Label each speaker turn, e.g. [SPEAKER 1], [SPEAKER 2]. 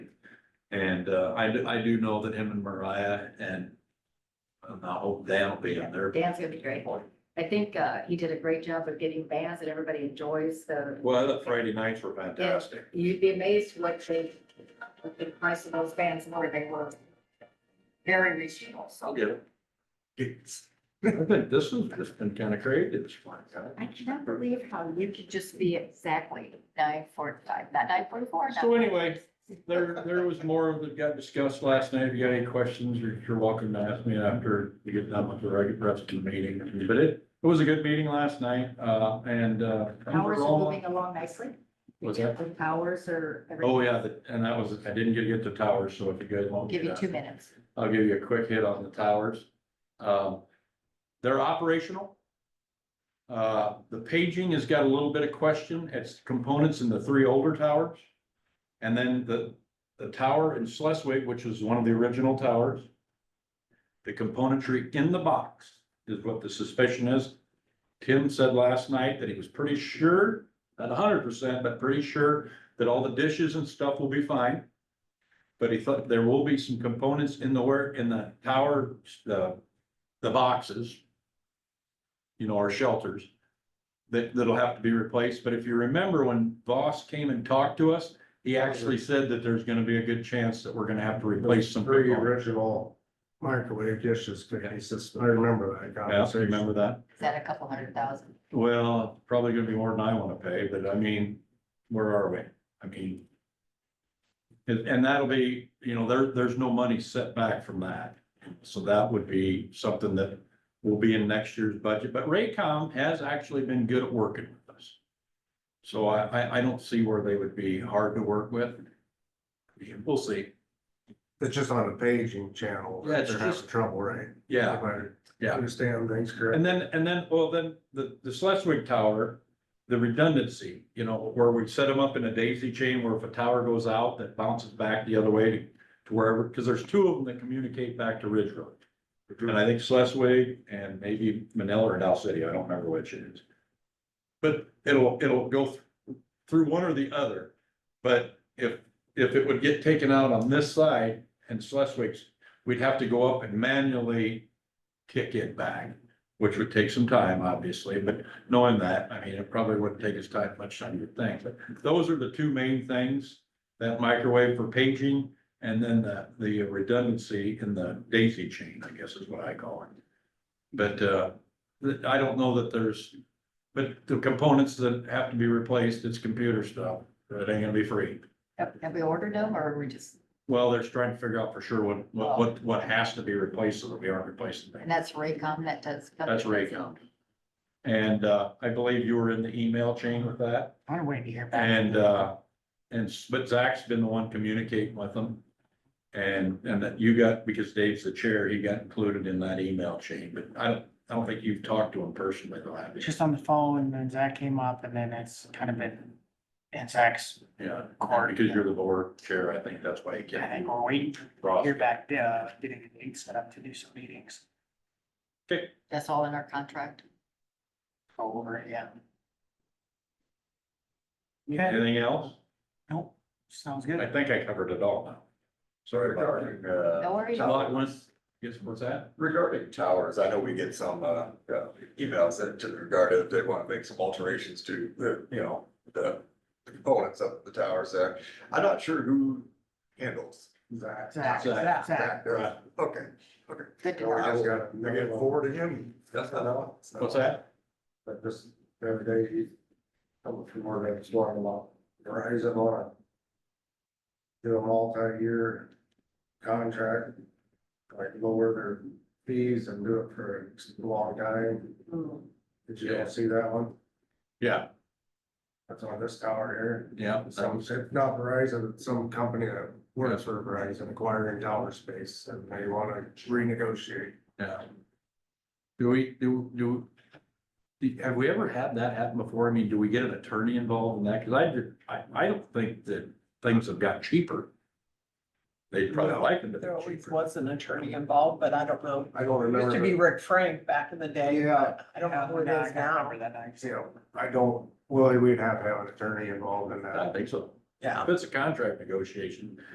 [SPEAKER 1] And, uh, I, do- I do know that him and Mariah and and I hope Dan will be in there.
[SPEAKER 2] Dan's gonna be great. I think, uh, he did a great job of getting bands that everybody enjoys, so
[SPEAKER 1] Well, the Friday nights were fantastic.
[SPEAKER 2] you'd be amazed what they, what the price of those bands were, they were very reasonable, so.
[SPEAKER 1] get it. I think this has just been kind of creative, this one, huh?
[SPEAKER 2] I cannot believe how you could just be exactly nine forty-five, not nine forty-four.
[SPEAKER 1] So anyway, there, there was more that got discussed last night. If you got any questions, you're, you're welcome to ask me after you get done with the regular rest of the meeting. But it, it was a good meeting last night, uh, and, uh.
[SPEAKER 2] Powers are moving along nicely.
[SPEAKER 1] Was that?
[SPEAKER 2] The powers are.
[SPEAKER 1] Oh, yeah, the- and that was, I didn't get to get the towers, so if you guys want. me
[SPEAKER 2] Give you
[SPEAKER 1] to-
[SPEAKER 2] two minutes.
[SPEAKER 1] I'll give you a quick hit on the towers. Um, They're operational. Uh, The paging has got a little bit of question. It's components in the three older towers. And then the, the tower in Schleswig, which was one of the original towers. The componentry in the box is what the suspicion is. Tim said last night that he was pretty sure, not hundred percent, but pretty sure that all the dishes and stuff will be fine. But he thought there will be some components in the work, in the tower, the, the boxes. You know, our shelters. That, that'll have to be replaced, but if you remember when Voss came and talked to us, he actually said that there's gonna be a good chance that we're gonna have to replace some.
[SPEAKER 3] Very
[SPEAKER 1] components.
[SPEAKER 3] original microwave dishes, but he says, I remember that
[SPEAKER 1] Yeah, so you
[SPEAKER 3] conversation.
[SPEAKER 1] remember that?
[SPEAKER 2] Is that a couple hundred thousand?
[SPEAKER 1] Well, probably gonna be more than I wanna pay, but I mean, where are we? I mean. And, and that'll be, you know, there, there's no money set back from that. So that would be something that will be in next year's budget, but Raycom has actually been good at working with us. So I, I, I don't see where they would be hard to work with. We'll see.
[SPEAKER 3] It's just on the paging channel.
[SPEAKER 1] Yeah,
[SPEAKER 3] that
[SPEAKER 1] it's
[SPEAKER 3] They're having
[SPEAKER 1] just-
[SPEAKER 3] trouble, right?
[SPEAKER 1] Yeah.
[SPEAKER 3] If I
[SPEAKER 1] Yeah.
[SPEAKER 3] Understand things correctly.
[SPEAKER 1] And then, and then, well, then the, the Schleswig Tower, the redundancy, you know, where we set them up in a daisy chain where if a tower goes out, that bounces back the other way to to wherever, because there's two of them that communicate back to Ridge Road. And I think Schleswig and maybe Manila or Dow City, I don't remember which it is. But it'll, it'll go th- through one or the other. But if, if it would get taken out on this side and Schleswig's, we'd have to go up and manually kick it back, which would take some time, obviously, but knowing that, I mean, it probably wouldn't take as time, much time to think. But those are the two main things, that microwave for paging and then the, the redundancy in the daisy chain, I guess is what I call it. But, uh, th- I don't know that there's, but the components that have to be replaced, it's computer stuff, that ain't gonna be free.
[SPEAKER 2] Have have we ordered them or are we just,
[SPEAKER 1] Well, they're just trying to figure out for sure what, what, what, what has to be replaced so that we aren't replacing
[SPEAKER 2] and
[SPEAKER 1] things.
[SPEAKER 2] that's Raycom that does.
[SPEAKER 1] That's Raycom. And, uh, I believe you were in the email chain with that.
[SPEAKER 2] I don't wait to hear
[SPEAKER 1] And, uh, and, but Zach's been the one communicating with them. And, and that you got, because Dave's the chair, he got included in that email chain, but I don't, I don't think you've talked to him personally, though, have you?
[SPEAKER 4] just on the phone and then Zach came up and then it's kind of been. And Zach's,
[SPEAKER 1] Yeah, because you're the board chair, I think that's why he
[SPEAKER 4] I
[SPEAKER 1] can't.
[SPEAKER 4] think we're waiting to
[SPEAKER 1] cross.
[SPEAKER 4] hear back, uh, getting a date set up to do some meetings.
[SPEAKER 2] That's all in our contract.
[SPEAKER 4] Go over it, yeah. Okay,
[SPEAKER 1] Anything else?
[SPEAKER 4] nope, sounds
[SPEAKER 1] I
[SPEAKER 4] good.
[SPEAKER 1] think I covered it all now. Sorry about that.
[SPEAKER 5] Regarding, uh,
[SPEAKER 2] No worries.
[SPEAKER 1] Lot one, yes, what's that?
[SPEAKER 5] regarding towers, I know we get some, uh, uh, emails that to the regard if they want to make some alterations to the, you know, the the components of the towers there. I'm not sure who handles that.
[SPEAKER 4] Zach, Zach, Zach.
[SPEAKER 5] Zach does. Okay, okay.
[SPEAKER 2] Good to
[SPEAKER 3] So we
[SPEAKER 2] know.
[SPEAKER 3] just got, I get forward to him.
[SPEAKER 5] That's not,
[SPEAKER 3] No, it's not.
[SPEAKER 1] What's that?
[SPEAKER 3] But just every day he's coming from where they're exploring a lot. Rise up on a. Do a multi-year contract. Like lower their fees and do it for a long time.
[SPEAKER 2] Mm.
[SPEAKER 3] Did you all see that one?
[SPEAKER 1] Yeah,
[SPEAKER 3] That's on this tower here.
[SPEAKER 1] yeah.
[SPEAKER 3] Some, if not Verizon, some company that works for Verizon acquiring tower space and they wanna renegotiate.
[SPEAKER 1] Yeah. Do we, do, do, do- have we ever had that happen before? I mean, do we get an attorney involved in that? Cause I, did- I, I don't think that things have got cheaper. They probably like them to
[SPEAKER 6] There
[SPEAKER 1] be
[SPEAKER 6] always
[SPEAKER 1] cheaper.
[SPEAKER 6] was an attorney involved, but I don't know.
[SPEAKER 3] I don't remember.
[SPEAKER 6] Used to be
[SPEAKER 3] the-
[SPEAKER 6] Rick Frank back in the day.
[SPEAKER 3] Yeah.
[SPEAKER 6] I don't know who it
[SPEAKER 4] Yeah, I
[SPEAKER 6] is
[SPEAKER 4] can't
[SPEAKER 6] now.
[SPEAKER 4] remember that night.
[SPEAKER 3] You know, I don't, well, we'd have to have an attorney involved in
[SPEAKER 1] I
[SPEAKER 3] that.
[SPEAKER 1] think so.
[SPEAKER 6] Yeah.
[SPEAKER 1] If it's a contract negotiation,